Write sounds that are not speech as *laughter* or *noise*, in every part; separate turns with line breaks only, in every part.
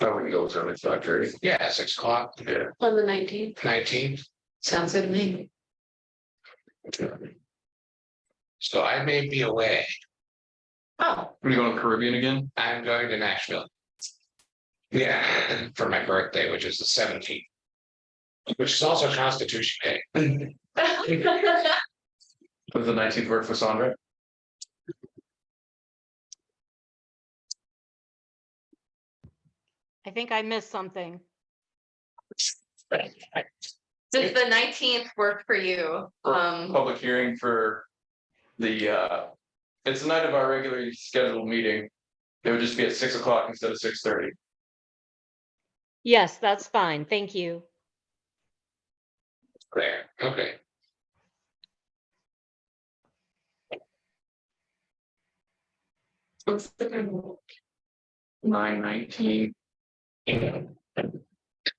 I would Oh, go through it, five thirty,
Yeah, six o'clock,
yeah.
on the nineteenth,
nineteenth.
sounds good to me.
So I may be away.
*laughs*
Oh,
Are you going to Caribbean again?
I'm going to Nashville. Yeah, for my birthday, which is the seventeenth. Which is also Constitution Day.
*clears throat*
Does the nineteenth work for Sandra?
I think I missed something.
Does the nineteenth work for you?
For
Um,
Public hearing for the, uh, it's the night of our regularly scheduled meeting. It would just be at six o'clock instead of six thirty.
Yes, that's fine. Thank you.
There, okay.
Nine nineteen,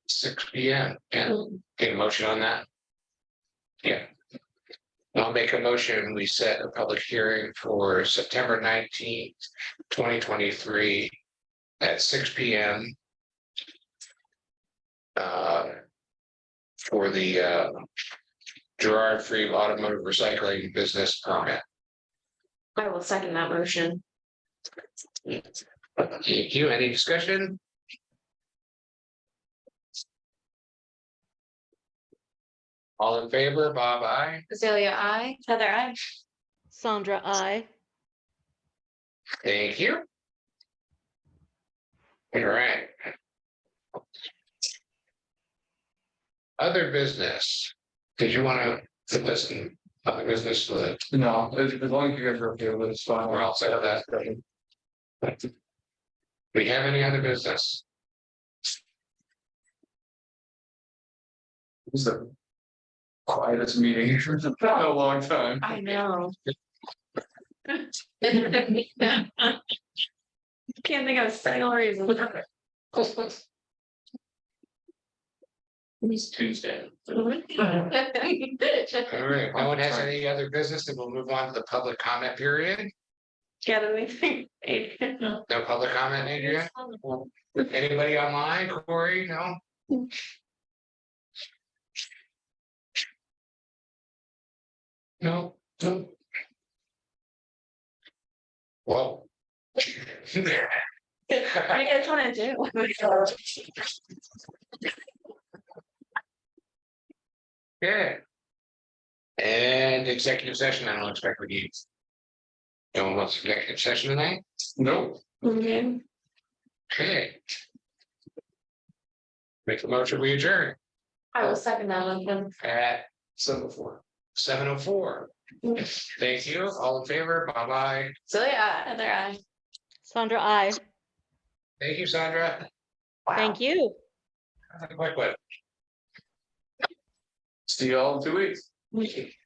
Six P M, yeah, get a motion on that. Yeah. I'll make a motion, we set a public hearing for September nineteenth, twenty twenty-three at six P M. Uh. For the uh. Gerard Free Automotive Recycling Business Permit.
I will second that motion.
Thank you, any discussion? All in favor, Bob, I?
Azalea, I,
Heather, I.
Sandra, I.
Thank you. All right. Other business, did you want to listen, other business, uh,
No, as, as long as you guys are okay with it, it's fine.
We're all set with that. we have any other business?
It's the quietest meeting in a long time.
I know. Can't think of a single reason.
it's
*laughs*
Tuesday.
All right, if no one has any other business, then we'll move on to the public comment period.
Gather we think. No.
No public comment, Andrea? Anybody online, Corey? No? No, no. *laughs* Whoa.
I guess what I do.
*laughs*
Yeah. And executive session, I don't expect we need. No one wants executive session tonight?
Nope.
Okay.
Okay. Make a motion, we adjourn
I will second that motion.
at seven oh four. Seven oh four. Thank you, all in favor, bye bye.
Azalea, I.
Heather, I.
Sandra, I.
Thank you, Sandra.
Thank you.
Have a Quick one.
See y'all in two weeks.